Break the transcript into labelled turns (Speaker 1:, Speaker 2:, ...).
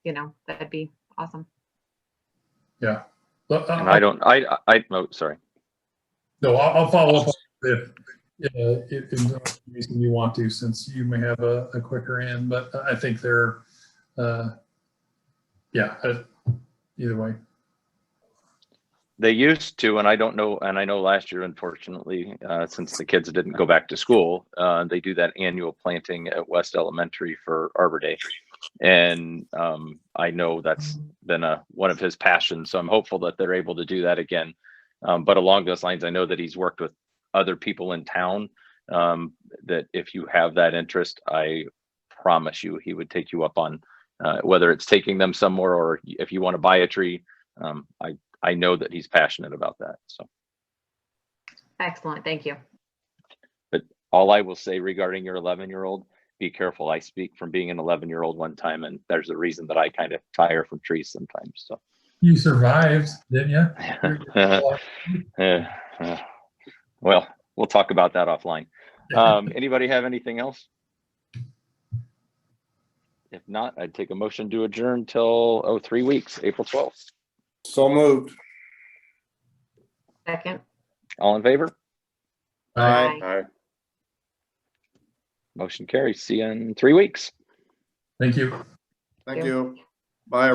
Speaker 1: you know, that'd be awesome.
Speaker 2: Yeah. Well,
Speaker 3: And I
Speaker 2: I- I-
Speaker 3: don't, I, I, oh, sorry.
Speaker 2: No, I'll, I'll follow up on if, yeah, if, if reason you want to, since you may have a, a quicker end, but I think they're, uh, yeah, uh, either way.
Speaker 3: They used to, and I don't know, and I know last year, unfortunately, uh, since the kids didn't go back to school, uh, they do that annual planting at West Elementary for Arbor Day. And, um, I know that's been a, uh, one of his passions, so I'm hopeful that they're able to do that again. Um, but along those lines, I know that he's worked with other people in town, um, that if you have that interest, I promise you, he would take you up on, uh, whether it's taking them somewhere or if you want to buy a tree. Um, I I know that he's passionate about that. So
Speaker 1: Excellent, thank you.
Speaker 3: all I will say regarding your 11 year old, be careful. I speak from being an 11 year old one time, and there's a reason that I kind of tire from trees sometimes. So
Speaker 2: You survived, didn't you?
Speaker 3: Eh, eh. well, we'll talk about that offline. Um, anybody have anything else? If not, I'd take a motion to adjourn till, oh, three weeks, April 12th.
Speaker 4: So moved.
Speaker 1: Second,
Speaker 3: All in favor?
Speaker 2: Bye.
Speaker 1: Aye.
Speaker 4: Aye.
Speaker 3: Motion carries. See you in three weeks.
Speaker 2: Thank you.
Speaker 4: Thank you.